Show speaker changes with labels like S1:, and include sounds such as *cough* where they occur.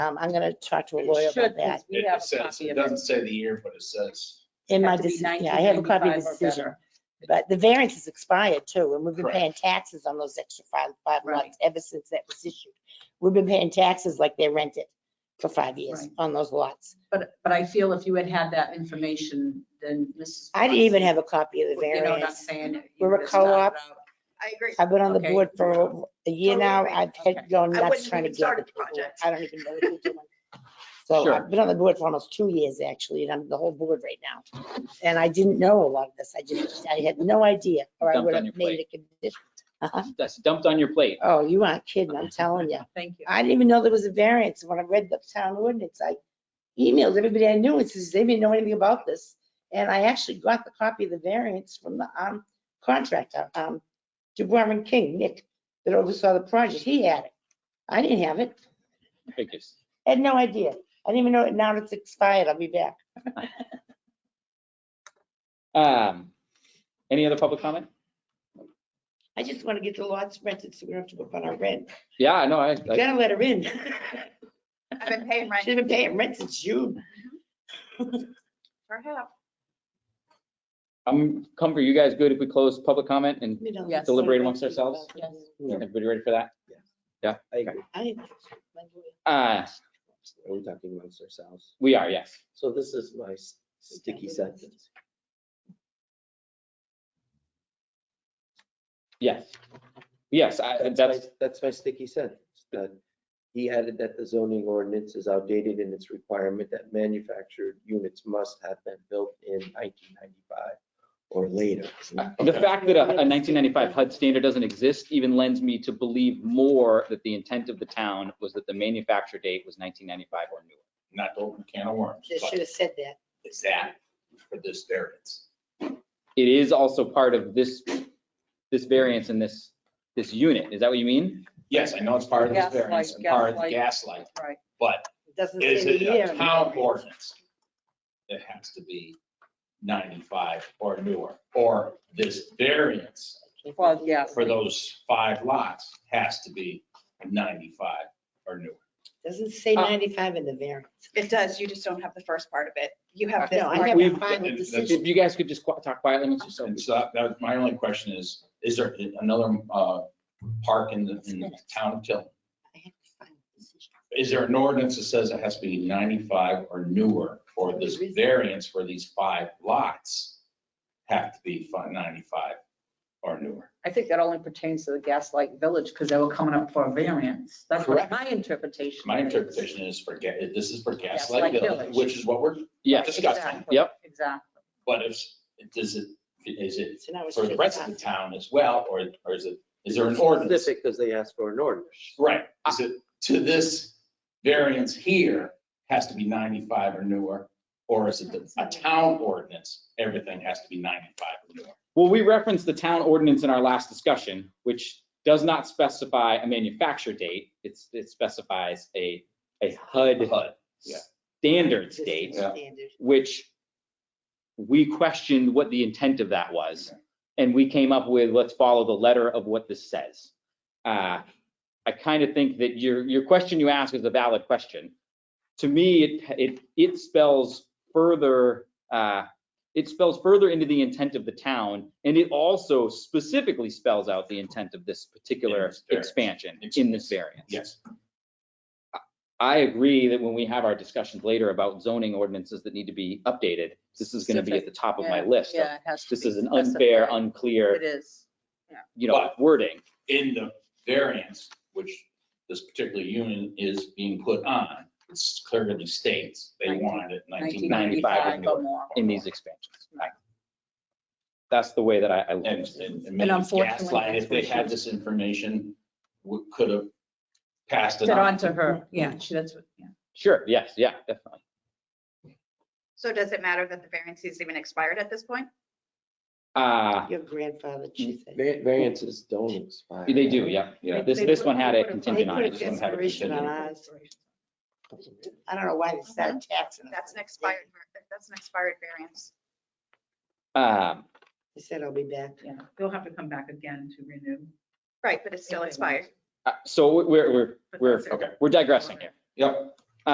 S1: Um, I'm gonna talk to a
S2: It
S1: lawyer
S3: Should,
S1: about that.
S3: because we have
S2: It
S3: a
S2: says,
S3: copy
S2: it
S3: of it.
S2: doesn't say the year, but it says,
S1: In my,
S3: Have to be
S1: deci- yeah, I have a copy of the
S3: 1995 or
S1: decision.
S3: better.
S1: But the variance is expired too, and we've been
S2: Correct.
S1: paying taxes on those extra five, five
S3: Right.
S1: lots ever since that was issued. We've been paying taxes like they rented for five years
S3: Right.
S1: on those lots.
S3: But, but I feel if you had had that information, then Mrs.
S1: I didn't even have a copy of the
S3: You know what I'm
S1: variance.
S3: saying? You
S1: We're a
S3: would've started
S1: co-op.
S3: out-
S4: I
S1: *laughs*
S4: agree.
S1: I've been on the
S3: Okay.
S1: board for over a year
S4: Totally
S1: now.
S4: agree.
S1: I've
S3: Okay.
S1: had gone
S4: I
S1: nuts
S4: wouldn't
S1: trying to
S4: even
S1: get.
S4: started the
S1: people.
S4: project.
S1: I don't even know what they're
S4: *laughs*
S1: doing. So
S5: Sure.
S1: I've been on the board for almost two years actually, and I'm the whole board right now. And I didn't know a lot of this. I just, I had no idea, or I
S5: Dumped
S1: would
S5: on
S1: have
S5: your
S1: made it a condition. Uh-huh.
S5: That's dumped on your plate.
S1: Oh, you aren't kidding. I'm telling you.
S3: Thank you.
S1: I didn't even know there was a variance. When I read the town ordinance, I emailed everybody I knew and says, they didn't know anything about this. And I actually got the copy of the variance from the um, contractor, um, DeBoer and King, Nick, that oversaw the project. He had it. I didn't have it.
S5: Biggest.
S1: Had no idea. I didn't even know it. Now it's expired. I'll be back.
S5: Um, Any other public comment?
S1: I just want to get the lots rented so we don't have to go up on our rent.
S5: Yeah, no, I,
S1: We
S5: I-
S1: Gotta let her *laughs* in.
S4: I've been paying rent
S1: She's been paying rent since June.
S4: for half.
S5: I'm comfortable. You guys good if we close public comment and
S1: We don't-
S3: Yes.
S5: Deliberate amongst ourselves?
S3: Yes.
S5: everybody ready for that?
S6: I agree.
S1: I-
S5: Uh,
S6: Are we talking amongst ourselves?
S5: We are, yes.
S6: So this is my s- sticky sentence.
S5: Yes. Yes, I,
S6: That's
S5: Uh, that's,
S6: my- That's my sticky sentence, that he added that the zoning ordinance is outdated in its requirement that manufactured units must have been built in nineteen ninety-five or later.
S5: the fact that a a 1995 HUD standard doesn't exist even lends me to believe more that the intent of the town was that the manufacture date was 1995 or newer.
S2: not to open a can of worms,
S1: They should
S2: but
S1: have said that.
S2: it's that for this variance.
S5: It is also part of this, this variance in this, this unit. Is that what you mean?
S2: Yes, I know it's part of this
S3: Gaslight,
S2: variance and part of the gaslight,
S3: Right.
S2: but
S1: It Doesn't
S2: is
S1: say the
S2: it
S1: year.
S2: a town ordinance that has to be 95 or newer? Or this variance
S3: Well, yes.
S2: for those five lots has to be 95 or newer?
S1: Doesn't say
S5: Uh,
S1: 95 in the variance.
S4: It does. You just don't have the first part of it. You have this
S1: No, I
S4: part.
S1: have a
S5: We've-
S1: final decision.
S5: If you guys could just qui- talk quietly amongst
S2: And
S5: yourselves.
S2: so that- that, was my only question is, is there another uh, park in the, in the town of Tilton?
S1: I have a final decision.
S2: Is there an ordinance that says it has to be 95 or newer for this variance for these five lots have to be fi- 95 or newer?
S3: I think that only pertains to the Gaslight Village because they were coming up for a variance. That's what
S2: Correct.
S3: my interpretation.
S2: My
S3: is.
S2: interpretation is for, ga- this is for
S3: Gaslight
S2: Gaslight Village,
S3: Village.
S2: which is what we're
S5: Yes,
S2: discussing.
S3: Exactly,
S5: Yep.
S3: Exactly.
S2: But if, does it, is it
S1: So now it's
S2: for the rest of the town as well, or, or is it, is there an ordinance?
S6: Specific, because they asked for an ordinance.
S2: Right, is it to this variance here has to be 95 or newer? Or is it the- a town ordinance, everything has to be 95 or newer?
S5: Well, we referenced the town ordinance in our last discussion, which does not specify a manufacture date. It's, it specifies a, a HUD
S2: HUD, yeah.
S5: standards date,
S2: Yeah.
S1: Standard.
S5: which we questioned what the intent of that was. And we came up with, let's follow the letter of what this says. Uh, I kind of think that your, your question you ask is a valid question. To me, it, it, it spells further, uh, it spells further into the intent of the town, and it also specifically spells out the intent of this
S2: In
S5: particular
S2: this variance.
S5: expansion in this variance.
S2: Yes.
S5: I agree that when we have our discussions later about zoning ordinances that need to be updated, this is going to be at the top of my
S3: Yeah,
S5: list. of
S3: Yeah, it has to
S5: This
S3: be
S5: is an unfair,
S3: specified. It
S5: unclear,
S3: is.
S5: you know,
S2: But-
S5: wording.
S2: In the variance, which this particular unit is being put on, it clearly states they wanted it 1995 or
S3: 1995 or
S2: newer.
S3: more.
S5: in these expansions. That's the way that I, I look at
S2: And,
S5: it.
S2: and- and
S3: And
S2: maybe
S3: unfortunately,
S2: Gaslight, if they
S3: that's what
S2: had
S3: she-
S2: this information, would, could have passed it
S3: Did
S2: on.
S3: on to her, yeah, she, that's, what- yeah.
S5: Sure, yes, yeah, definitely.
S4: So does it matter that the variance is even expired at this point?
S5: Uh,
S1: Your grandfather, she
S4: Mm-hmm.
S1: said.
S6: Va- Variances don't expire.
S5: they do, yeah.
S2: Yeah.
S5: This,
S3: They
S5: this
S3: put-
S5: one had
S3: they
S5: a
S3: put a-
S1: They
S5: contingent on
S1: put
S5: it.
S1: an
S5: This one had a
S1: expiration on
S5: contingent.
S1: ours. I don't know why they started taxing us.
S4: Uh-huh. That's an expired, var- that's an expired variance.
S5: Um,
S1: They said, I'll be back.
S3: yeah. They'll have to come back again to renew.
S4: Right, but it's still expired.
S5: uh, So we're, we're,
S3: but
S5: we're,
S3: that's it.
S2: okay.
S5: we're digressing here.
S2: Yep,